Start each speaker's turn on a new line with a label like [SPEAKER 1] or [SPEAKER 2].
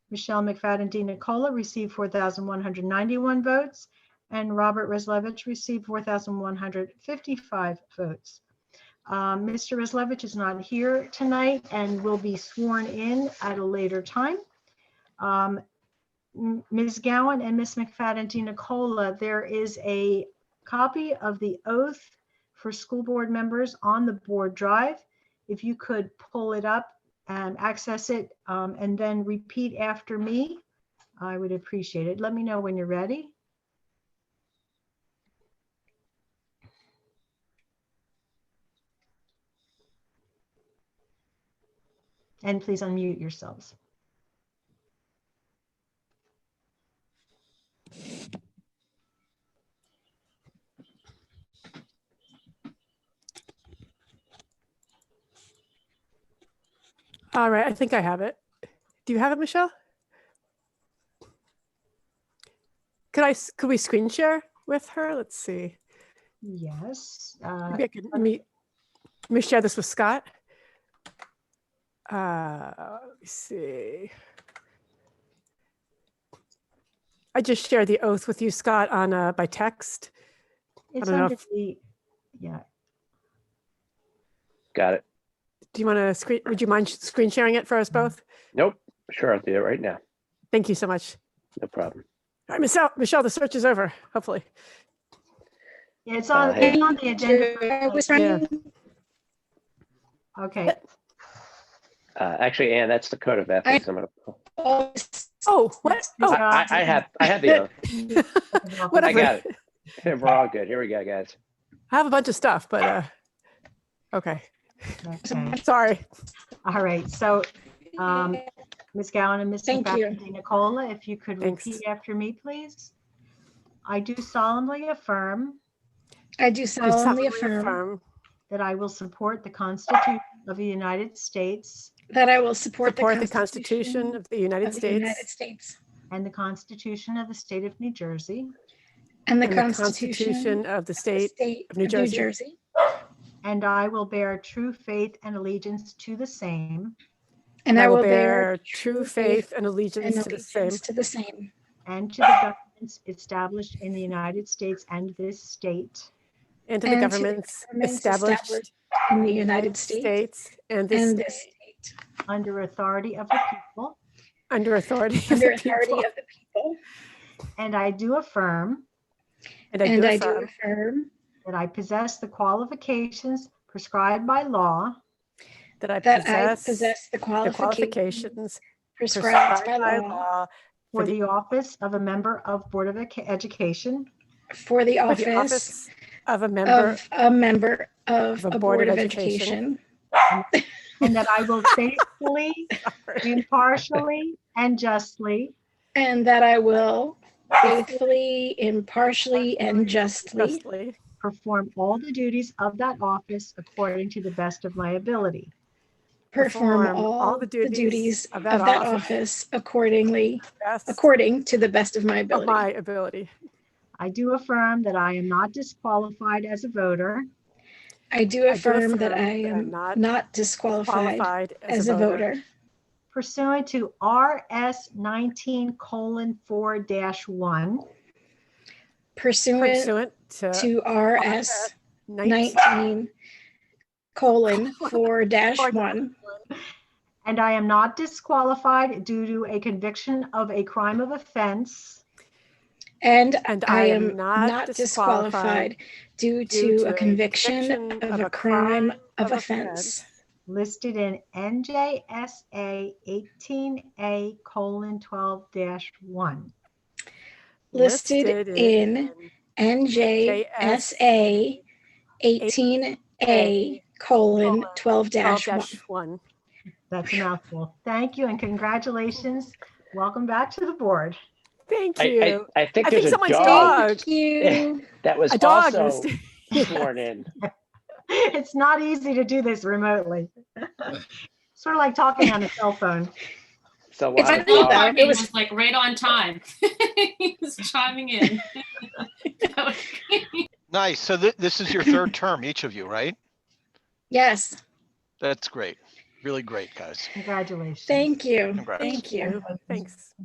[SPEAKER 1] Michelle McFadden Di Nicola received 4,191 votes, and Robert Reslevich received 4,155 votes. Um, Mr. Reslevich is not here tonight and will be sworn in at a later time. Um, M- Ms. Gowan and Ms. McFadden Di Nicola, there is a copy of the oath for school board members on the board drive. If you could pull it up and access it um, and then repeat after me, I would appreciate it. Let me know when you're ready. And please unmute yourselves.
[SPEAKER 2] All right, I think I have it. Do you have it, Michelle? Could I, s- could we screen share with her? Let's see.
[SPEAKER 1] Yes. uh,
[SPEAKER 2] Maybe I could meet, let me share this with Scott. Uh, let me see. I just shared the oath with you, Scott, on, uh, by text.
[SPEAKER 1] It's
[SPEAKER 2] don't know
[SPEAKER 1] under
[SPEAKER 2] if-
[SPEAKER 1] the, yeah,
[SPEAKER 3] Got it.
[SPEAKER 2] Do you want to screen, would you mind sh- screen sharing it for us both?
[SPEAKER 3] Nope. Sure, I'll do it right now.
[SPEAKER 2] Thank you so much.
[SPEAKER 3] No problem.
[SPEAKER 2] All right, Michelle, Michelle, the search is over, hopefully.
[SPEAKER 1] yeah, it's on,
[SPEAKER 3] Uh,
[SPEAKER 1] it's on the agenda.
[SPEAKER 4] I was
[SPEAKER 2] Yeah.
[SPEAKER 4] running.
[SPEAKER 1] Okay,
[SPEAKER 3] Uh, actually, Anne, that's the code of ethics. I'm gonna.
[SPEAKER 2] Oh, what? Oh,
[SPEAKER 3] I, I, I have, I have the. oath. I
[SPEAKER 2] whatever.
[SPEAKER 3] got it. We're all good. Here we go, guys.
[SPEAKER 2] I have a bunch of stuff, but uh, okay.
[SPEAKER 1] Okay.
[SPEAKER 2] Sorry.
[SPEAKER 1] All right, so Um, Ms. Gowan and Ms.
[SPEAKER 4] Thank you.
[SPEAKER 1] McFadden Nicola, if you could
[SPEAKER 2] Thanks.
[SPEAKER 1] repeat after me, please. I do solemnly affirm
[SPEAKER 4] I do solemnly affirm
[SPEAKER 1] that I will support the Constitution of the United States
[SPEAKER 4] that I will support
[SPEAKER 2] Support the Constitution of the United
[SPEAKER 4] of the United
[SPEAKER 2] States
[SPEAKER 4] States
[SPEAKER 1] and the Constitution of the State of New Jersey,
[SPEAKER 4] and
[SPEAKER 2] and
[SPEAKER 4] the
[SPEAKER 2] the
[SPEAKER 4] Constitution
[SPEAKER 2] Constitution
[SPEAKER 4] of
[SPEAKER 2] of the
[SPEAKER 4] the
[SPEAKER 2] State
[SPEAKER 4] State
[SPEAKER 2] of
[SPEAKER 4] of
[SPEAKER 2] New
[SPEAKER 4] New
[SPEAKER 2] Jersey.
[SPEAKER 4] Jersey.
[SPEAKER 1] and I will bear true faith and allegiance to the same
[SPEAKER 4] And I will bear
[SPEAKER 2] true faith and
[SPEAKER 4] and
[SPEAKER 2] allegiance to the same
[SPEAKER 4] allegiance to the same
[SPEAKER 1] and to the governments established in the United States and this state
[SPEAKER 2] and to the
[SPEAKER 4] and to the
[SPEAKER 2] governments
[SPEAKER 4] governments
[SPEAKER 2] established
[SPEAKER 4] established in the United States
[SPEAKER 2] states and this
[SPEAKER 4] and this state
[SPEAKER 1] under authority of the people.
[SPEAKER 2] under authority of
[SPEAKER 4] under
[SPEAKER 2] the
[SPEAKER 4] authority
[SPEAKER 2] people.
[SPEAKER 4] of the people.
[SPEAKER 1] And I do affirm
[SPEAKER 2] And
[SPEAKER 4] And I
[SPEAKER 2] I do
[SPEAKER 4] do
[SPEAKER 2] affirm
[SPEAKER 4] affirm
[SPEAKER 1] that I possess the qualifications prescribed by law
[SPEAKER 2] that I
[SPEAKER 4] that I
[SPEAKER 2] possess
[SPEAKER 4] possess the
[SPEAKER 2] the
[SPEAKER 4] qualifications
[SPEAKER 2] qualifications
[SPEAKER 4] prescribed
[SPEAKER 2] prescribed
[SPEAKER 4] by
[SPEAKER 2] by
[SPEAKER 4] law
[SPEAKER 2] law
[SPEAKER 1] for
[SPEAKER 2] For the-
[SPEAKER 1] the office of a member of Board of Ec- Education,
[SPEAKER 4] for
[SPEAKER 2] for
[SPEAKER 4] the
[SPEAKER 2] the
[SPEAKER 4] office
[SPEAKER 2] office of a member
[SPEAKER 4] of a member of a Board of Education.
[SPEAKER 1] and that I will faithfully, impartially, and justly
[SPEAKER 4] And that I will faithfully, impartially, and justly
[SPEAKER 2] justly
[SPEAKER 1] perform all the duties of that office according to the best of my ability.
[SPEAKER 4] perform all the duties
[SPEAKER 2] of
[SPEAKER 4] of that office accordingly,
[SPEAKER 2] best
[SPEAKER 4] according to the best of my
[SPEAKER 2] of my
[SPEAKER 4] ability.
[SPEAKER 2] ability.
[SPEAKER 1] I do affirm that I am not disqualified as a voter
[SPEAKER 4] I do affirm that I
[SPEAKER 2] affirm that I'm
[SPEAKER 4] am
[SPEAKER 2] not
[SPEAKER 4] not disqualified
[SPEAKER 2] qualified
[SPEAKER 4] as a voter
[SPEAKER 1] pursuant to RS 19 colon 4 dash 1
[SPEAKER 4] pursuant
[SPEAKER 2] pursuant to
[SPEAKER 4] to RS
[SPEAKER 2] 19
[SPEAKER 4] nineteen colon four dash one.
[SPEAKER 1] And I am not disqualified due to a conviction of a crime of offense
[SPEAKER 4] And
[SPEAKER 2] and
[SPEAKER 4] I am not disqualified due to a conviction of a crime of offense
[SPEAKER 1] listed in NJSA 18A colon 12 dash 1.
[SPEAKER 4] listed in NJSA 18A colon 12 dash 1.
[SPEAKER 2] 12-1.
[SPEAKER 1] That's a mouthful. Thank you and congratulations. Welcome back to the board.
[SPEAKER 2] Thank
[SPEAKER 3] I,
[SPEAKER 2] you.
[SPEAKER 3] I, I think
[SPEAKER 2] I think
[SPEAKER 3] there's a
[SPEAKER 2] someone's
[SPEAKER 3] dog
[SPEAKER 4] Thank you.
[SPEAKER 3] that was
[SPEAKER 2] A dog
[SPEAKER 3] also
[SPEAKER 2] is-
[SPEAKER 3] sworn in.
[SPEAKER 1] It's not easy to do this remotely. Sort of like talking on a cell phone.
[SPEAKER 3] So we'll
[SPEAKER 4] It's
[SPEAKER 3] have
[SPEAKER 4] a
[SPEAKER 3] a
[SPEAKER 4] dog.
[SPEAKER 3] dog.
[SPEAKER 4] It
[SPEAKER 5] It
[SPEAKER 4] was-
[SPEAKER 5] was like right on time. He was chiming in. That was great.
[SPEAKER 6] Nice. So thi- this is your third term, each of you, right?
[SPEAKER 4] Yes.
[SPEAKER 6] That's great.
[SPEAKER 1] really great, guys.
[SPEAKER 7] Congratulations.
[SPEAKER 6] Thank you.
[SPEAKER 1] Congrats.
[SPEAKER 6] Thank you.
[SPEAKER 2] Thanks.